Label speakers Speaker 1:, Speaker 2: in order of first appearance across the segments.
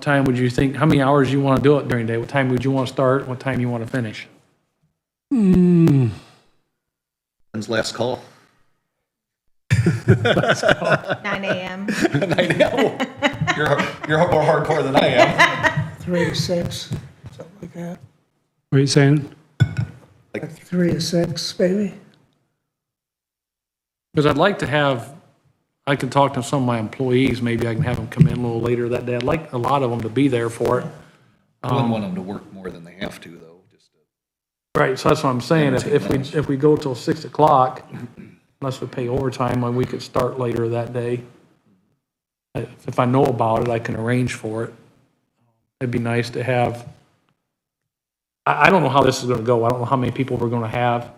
Speaker 1: time would you think, how many hours you want to do it during the day? What time would you want to start? What time you want to finish?
Speaker 2: When's last call?
Speaker 3: 9 AM.
Speaker 2: I know. You're, you're more hardcore than I am.
Speaker 4: three to six, something like that.
Speaker 5: What are you saying?
Speaker 4: Three to six, maybe?
Speaker 1: Because I'd like to have, I can talk to some of my employees, maybe I can have them come in a little later that day. I'd like a lot of them to be there for it.
Speaker 2: I wouldn't want them to work more than they have to, though. Just to-
Speaker 1: Right, so that's what I'm saying, if, if we, if we go till six o'clock, unless we pay overtime, then we could start later that day. If if I know about it, I can arrange for it. It'd be nice to have, I, I don't know how this is gonna go, I don't know how many people we're gonna have.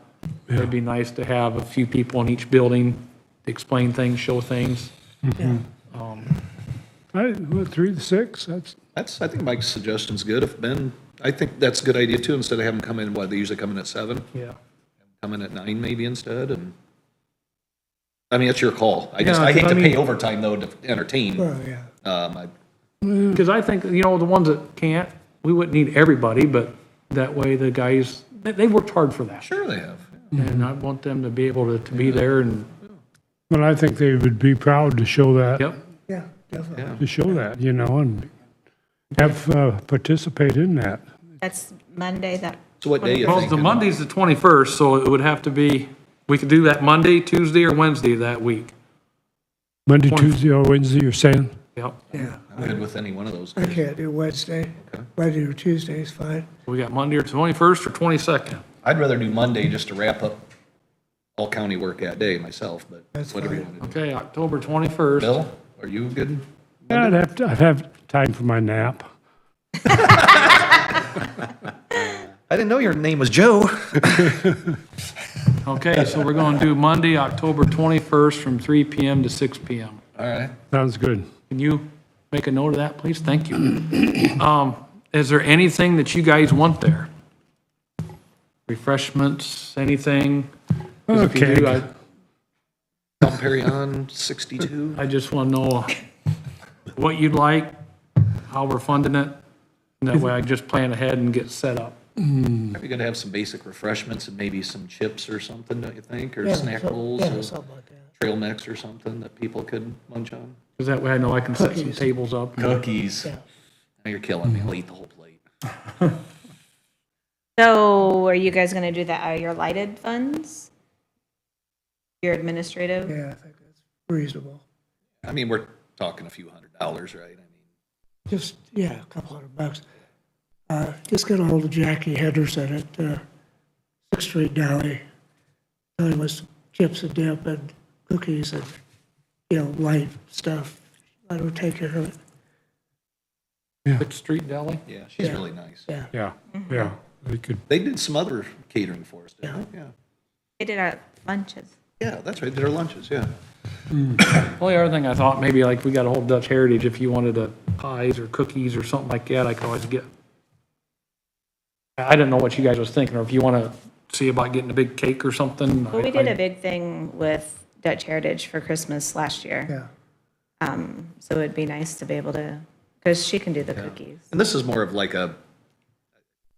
Speaker 1: It'd be nice to have a few people in each building, to explain things, show things.
Speaker 5: I, what, three to six? That's,
Speaker 2: That's, I think Mike's suggestion's good. If Ben, I think that's a good idea too, instead of having them come in, what, they usually come in at seven?
Speaker 1: Yeah.
Speaker 2: Come in at nine maybe instead and, I mean, it's your call. I just,
Speaker 1: Yeah,
Speaker 2: I hate
Speaker 1: 'cause
Speaker 2: to
Speaker 1: I
Speaker 2: pay
Speaker 1: mean-
Speaker 2: overtime though to entertain.
Speaker 4: Oh, yeah.
Speaker 2: Um, I,
Speaker 1: Because I think, you know, the ones that can't, we wouldn't need everybody, but that way the guys, they, they worked hard for that.
Speaker 2: sure they have.
Speaker 1: And I want them to be able to, to be there and,
Speaker 5: well, I think they would be proud to show that,
Speaker 1: yep,
Speaker 4: Yeah, definitely.
Speaker 5: to show that, you know, and have, uh, participate in that.
Speaker 3: That's Monday, that,
Speaker 2: So what day you
Speaker 1: Well, the
Speaker 2: thinking?
Speaker 1: Monday's the 21st, so it would have to be, we could do that Monday, Tuesday, or Wednesday that week.
Speaker 5: Monday,
Speaker 1: Twenty-
Speaker 5: Tuesday, or Wednesday, you're saying?
Speaker 1: Yep,
Speaker 4: Yeah,
Speaker 2: I'm good with any one of those.
Speaker 4: I can't do Wednesday. Monday or Tuesday is fine.
Speaker 1: we got Monday or 21st or 22nd.
Speaker 2: I'd rather do Monday just to wrap up all county work that day myself, but
Speaker 4: That's
Speaker 2: whatever you
Speaker 4: fine.
Speaker 2: want to do.
Speaker 1: Okay, October 21st.
Speaker 2: Bill, are you good?
Speaker 5: Yeah, I'd have, to- I'd have time for my nap.
Speaker 2: I didn't know your name was Joe.
Speaker 1: Okay, so we're going to do Monday, October 21st from 3 PM to 6 PM.
Speaker 2: All right.
Speaker 5: Sounds good.
Speaker 1: Can you make a note of that, please? Thank you. Um, Is there anything that you guys want there? Refreshments, anything? 'Cause if you do,
Speaker 5: Okay.
Speaker 2: Tom Perry on 62.
Speaker 1: I I just want to know what you'd like, how we're funding it, and that way I can just plan ahead and get set up.
Speaker 2: Probably gonna have some basic refreshments and maybe some chips or something, don't you think? Or
Speaker 4: Yeah,
Speaker 2: snack
Speaker 4: so-
Speaker 2: bowls
Speaker 4: Yeah,
Speaker 2: or
Speaker 4: something like that.
Speaker 2: trail mix or something that people could munch on?
Speaker 1: Because that way I know I can set some
Speaker 4: Cookies.
Speaker 1: tables up.
Speaker 2: Cookies. Now
Speaker 4: Yeah.
Speaker 2: you're killing me. I'll eat the whole plate.
Speaker 3: so are you guys going to do that out of your lighted funds? Your administrative?
Speaker 4: Yeah, I think that's reasonable.
Speaker 2: I mean, we're talking a few hundred dollars, right? I mean,
Speaker 4: Just, yeah, a couple hundred bucks. Uh, Just get ahold of Jackie Henderson at uh, Sixth Street Deli. Tell him with some chips and dip and cookies and, you know, light stuff. I will take care of it.
Speaker 1: Sixth Street Deli?
Speaker 2: Yeah, she's really nice.
Speaker 4: Yeah.
Speaker 5: Yeah, yeah, we could,
Speaker 2: They did some other catering for us, didn't they? Yeah.
Speaker 3: They did our lunches.
Speaker 2: Yeah, that's right. Their lunches, yeah.
Speaker 1: Only other thing I thought, maybe like we got a whole Dutch Heritage, if you wanted a pies or cookies or something like that, I could always get. I I didn't know what you guys was thinking, or if you want to see about getting a big cake or something.
Speaker 3: Well,
Speaker 1: I-
Speaker 3: we did
Speaker 1: I-
Speaker 3: a big thing with Dutch Heritage for Christmas last year.
Speaker 4: Yeah.
Speaker 3: Um, So it'd be nice to be able to, because she can do the cookies.
Speaker 2: And this is more of like a,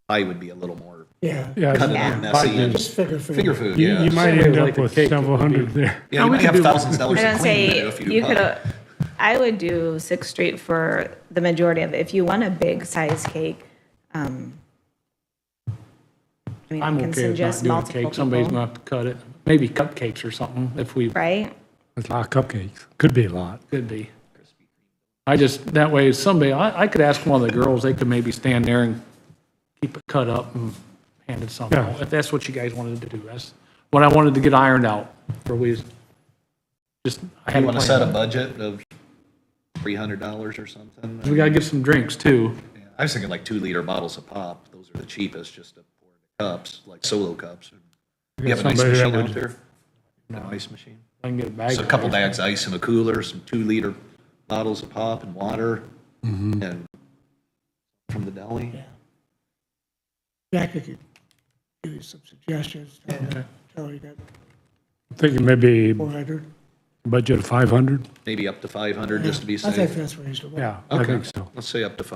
Speaker 2: I would be a little more
Speaker 4: Yeah.
Speaker 5: yeah.
Speaker 2: kind of
Speaker 3: Yeah.
Speaker 2: messy and
Speaker 4: Just figure food.
Speaker 2: finger food,
Speaker 5: You, you
Speaker 2: yeah.
Speaker 5: might
Speaker 1: Somebody
Speaker 5: end
Speaker 1: would
Speaker 5: up
Speaker 1: like a
Speaker 5: with
Speaker 1: cake, that
Speaker 5: several
Speaker 1: would
Speaker 5: hundred
Speaker 1: be-
Speaker 5: there.
Speaker 2: Yeah, you
Speaker 1: we
Speaker 2: might
Speaker 1: could
Speaker 2: have
Speaker 1: do-
Speaker 2: thousands of dollars
Speaker 3: I
Speaker 2: in
Speaker 3: don't
Speaker 2: clean
Speaker 3: say,
Speaker 2: video if you do
Speaker 3: you
Speaker 2: pop.
Speaker 3: could, I would do Sixth Street for the majority of, it. if you want a big size cake, um, I mean, I
Speaker 1: I'm
Speaker 3: can
Speaker 1: okay with not
Speaker 3: suggest
Speaker 1: doing a
Speaker 3: multiple
Speaker 1: cake. Somebody's
Speaker 3: people,
Speaker 1: gonna have to cut it. Maybe cupcakes or something, if we
Speaker 3: Right?
Speaker 5: It's a lot of cupcakes. Could be a lot.
Speaker 1: Could be. I just, that way, somebody, I, I could ask one of the girls, they could maybe stand there and keep it cut up and hand it something.
Speaker 5: Yeah.
Speaker 1: If that's what you guys wanted to do, that's what I wanted to get ironed out for we, just. I had
Speaker 2: You
Speaker 1: a
Speaker 2: want to
Speaker 1: plan.
Speaker 2: set a budget of three hundred dollars or something?
Speaker 1: We gotta get some drinks too.
Speaker 2: Yeah, I was thinking like two liter bottles of pop. Those are the cheapest, just to pour into cups, like solo cups. You have an ice
Speaker 5: somebody that
Speaker 2: machine out
Speaker 5: would-
Speaker 2: there? No ice machine.
Speaker 1: I can get a bag.
Speaker 2: So a
Speaker 1: of
Speaker 2: couple
Speaker 1: ice.
Speaker 2: bags of ice in a cooler, some two liter bottles of pop and water and from the deli.
Speaker 4: Jackie could give you some suggestions. Tell her, tell her you got
Speaker 5: Thinking maybe
Speaker 4: four hundred.
Speaker 5: budget of five hundred?
Speaker 2: Maybe up to five hundred just to be
Speaker 4: I think
Speaker 2: safe.
Speaker 4: that's reasonable.
Speaker 5: Yeah, I
Speaker 2: Okay,
Speaker 5: think so.
Speaker 2: Let's say up to five.